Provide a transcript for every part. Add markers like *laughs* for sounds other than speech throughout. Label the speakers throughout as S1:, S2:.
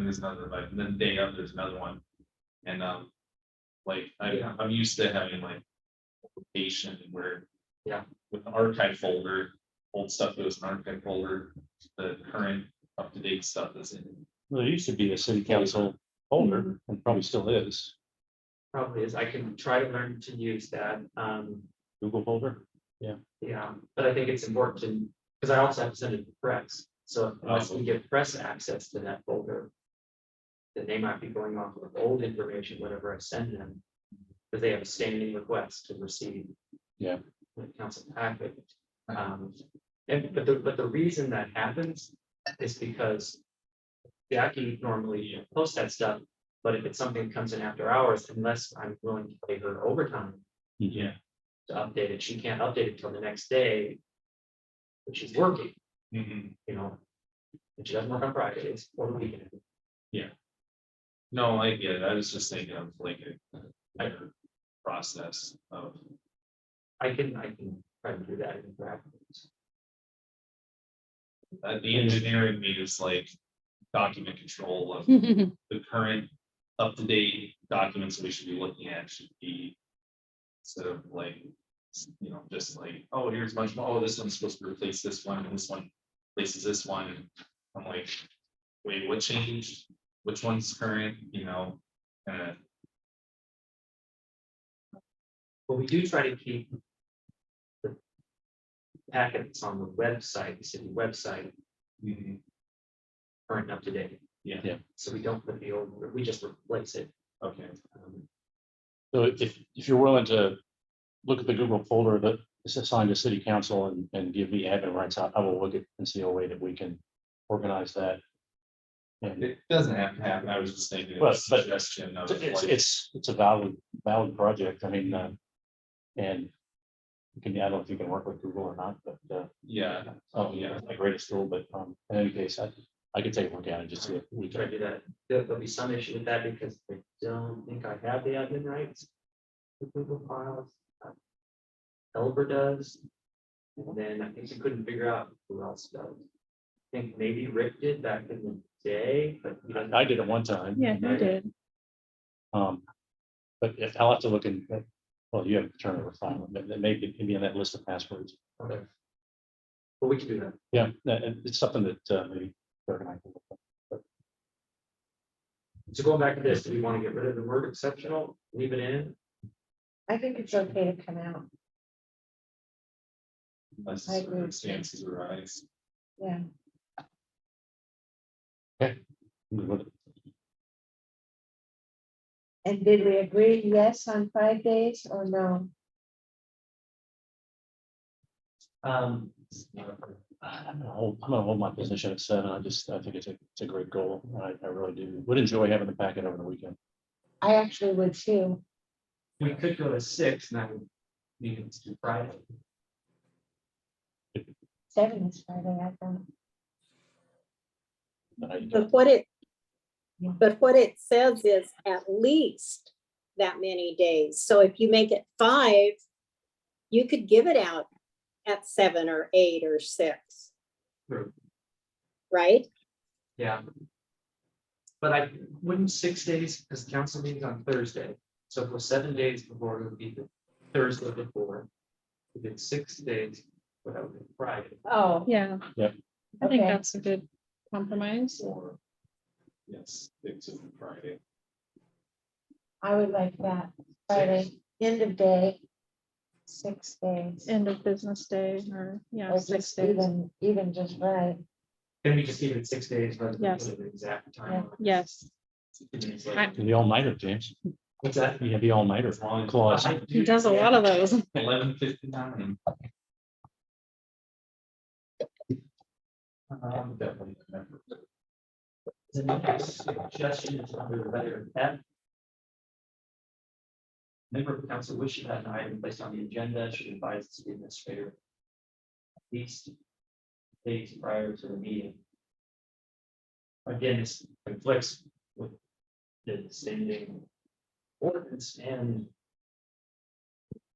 S1: there's another invite, and then the day of, there's another one. And, um, like, I,
S2: Yeah.
S1: I'm used to having like. Patient where.
S2: Yeah.
S1: With the archive folder, old stuff goes in archive folder, the current up to date stuff is in. Mm-hmm.
S3: Well, there used to be a city council folder and probably still is,
S2: probably is, I can try to learn to use that, um,
S3: Google folder.
S2: yeah, but I think it's important to, because I also have to send it to press. So unless we give press access to that folder. Then they might be going off of old information, whatever I send them, because they have a standing request to receive.
S3: Yeah.
S2: The council packet, um, and but the, but the reason that happens is because. Jackie normally posts that stuff, but if it's something that comes in after hours, unless I'm willing to pay her overtime
S1: Yeah.
S2: to update it. She can't update it till the next day. But she's working,
S1: Mhm.
S2: you know. And she doesn't work on Fridays or the weekend.
S1: No, I get it. I was just thinking of like a higher process of.
S2: I can, I can try to do that in practice.
S1: Uh, the engineering means like document control
S2: *laughs*
S4: *laughs*
S1: of the current up-to-date documents we should be looking at should be. Sort of like, you know, just like, oh, here's a bunch more, oh, this one's supposed to replace this one, and this one replaces this one, and I'm like. Wait, what changed? Which one's current, you know, uh,
S2: But we do try to keep. the Packets on the website, the city website, current and up to date.
S1: mm-hmm, Yeah.
S3: Yeah.
S2: So we don't put the old, we just replace it.
S1: okay,
S2: Um,
S3: So if, if you're willing to look at the Google folder that is assigned to city council and, and give me admin rights, I I will look at and see a way that we can organize that. And
S1: it doesn't have to happen, I was just thinking of
S3: Well,
S1: a
S3: but-
S1: suggestion of
S3: it's,
S1: like,
S3: it's, it's a valid, valid project. I mean, uh, and you can, I don't know if you can work with Google or not, but, uh,
S1: yeah,
S3: oh, yeah, it's my greatest tool, but, um, in any case, I, I could take a look at it just see if we
S2: We try to
S3: can.
S2: do that. There- There'll be some issue with that because I don't think I have the admin rights. for Google Files. Uh, Elber does. And then I think we couldn't figure out who else does. I think maybe Rick did back in the day, but. he doesn't-
S3: I did it one time.
S5: Yeah, you did.
S3: Um, but if- I'll have to look in, well, you have to turn over file, that, that may be, maybe in that list of passwords.
S2: Okay. But we can do that.
S3: Yeah, that- and it's something that, uh, maybe. Doug and I can look at.
S2: So going back to this, do we want to get rid of the word exceptional, leave it in?
S4: I think it's okay to come out,
S1: unless
S4: I agree.
S1: circumstances arise.
S4: yeah.
S3: I'm good with it.
S4: And did we agree yes on five days or no?
S2: Um.
S3: I'm gonna hold, I'm gonna hold my position at seven. I just, I think it's a, it's a great goal. I, I really do. Would enjoy having the packet over the weekend.
S4: I actually would too.
S2: We could go to six and that would mean it's due Friday.
S4: Seven is Friday, I thought.
S3: But I-
S6: But what it,
S4: Yeah.
S6: but what it says is at least that many days. So if you make it five, you could give it out at seven or eight or six.
S2: True.
S6: Right?
S2: Yeah. But I wouldn't six days, because council meeting's on Thursday, so for seven days before, it would be the Thursday before. If it's six days, what that would be Friday,
S4: Oh,
S5: Yeah.
S3: Yep.
S5: I think
S4: Okay.
S5: that's a good compromise.
S1: Or, yes, it's a Friday.
S4: I would like that. Friday, end of day. Six days.
S5: End of business day or, yeah,
S4: Or
S5: six
S4: just
S5: days.
S4: even, even just right.
S2: then we just leave it six days rather than
S5: Yes.
S2: put an exact time.
S5: Yes.
S2: It's like-
S3: The all-nighter, James.
S2: What's that?
S3: You have the all-nighter clause.
S2: I
S5: He
S2: do-
S5: does a lot of those. *laughs*
S1: Eleven fifty-nine.
S2: Um, The next suggestion is under the letter F. Member of council wishing that an item placed on the agenda should advise the city administrator. At least. Days prior to the meeting. Again, this conflicts with. The standing. Ordinance and.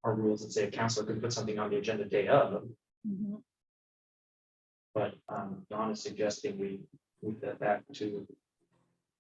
S2: Our rules that say a council can put something on the agenda day of.
S5: Mhm.
S2: But um, Don is suggesting we move that back to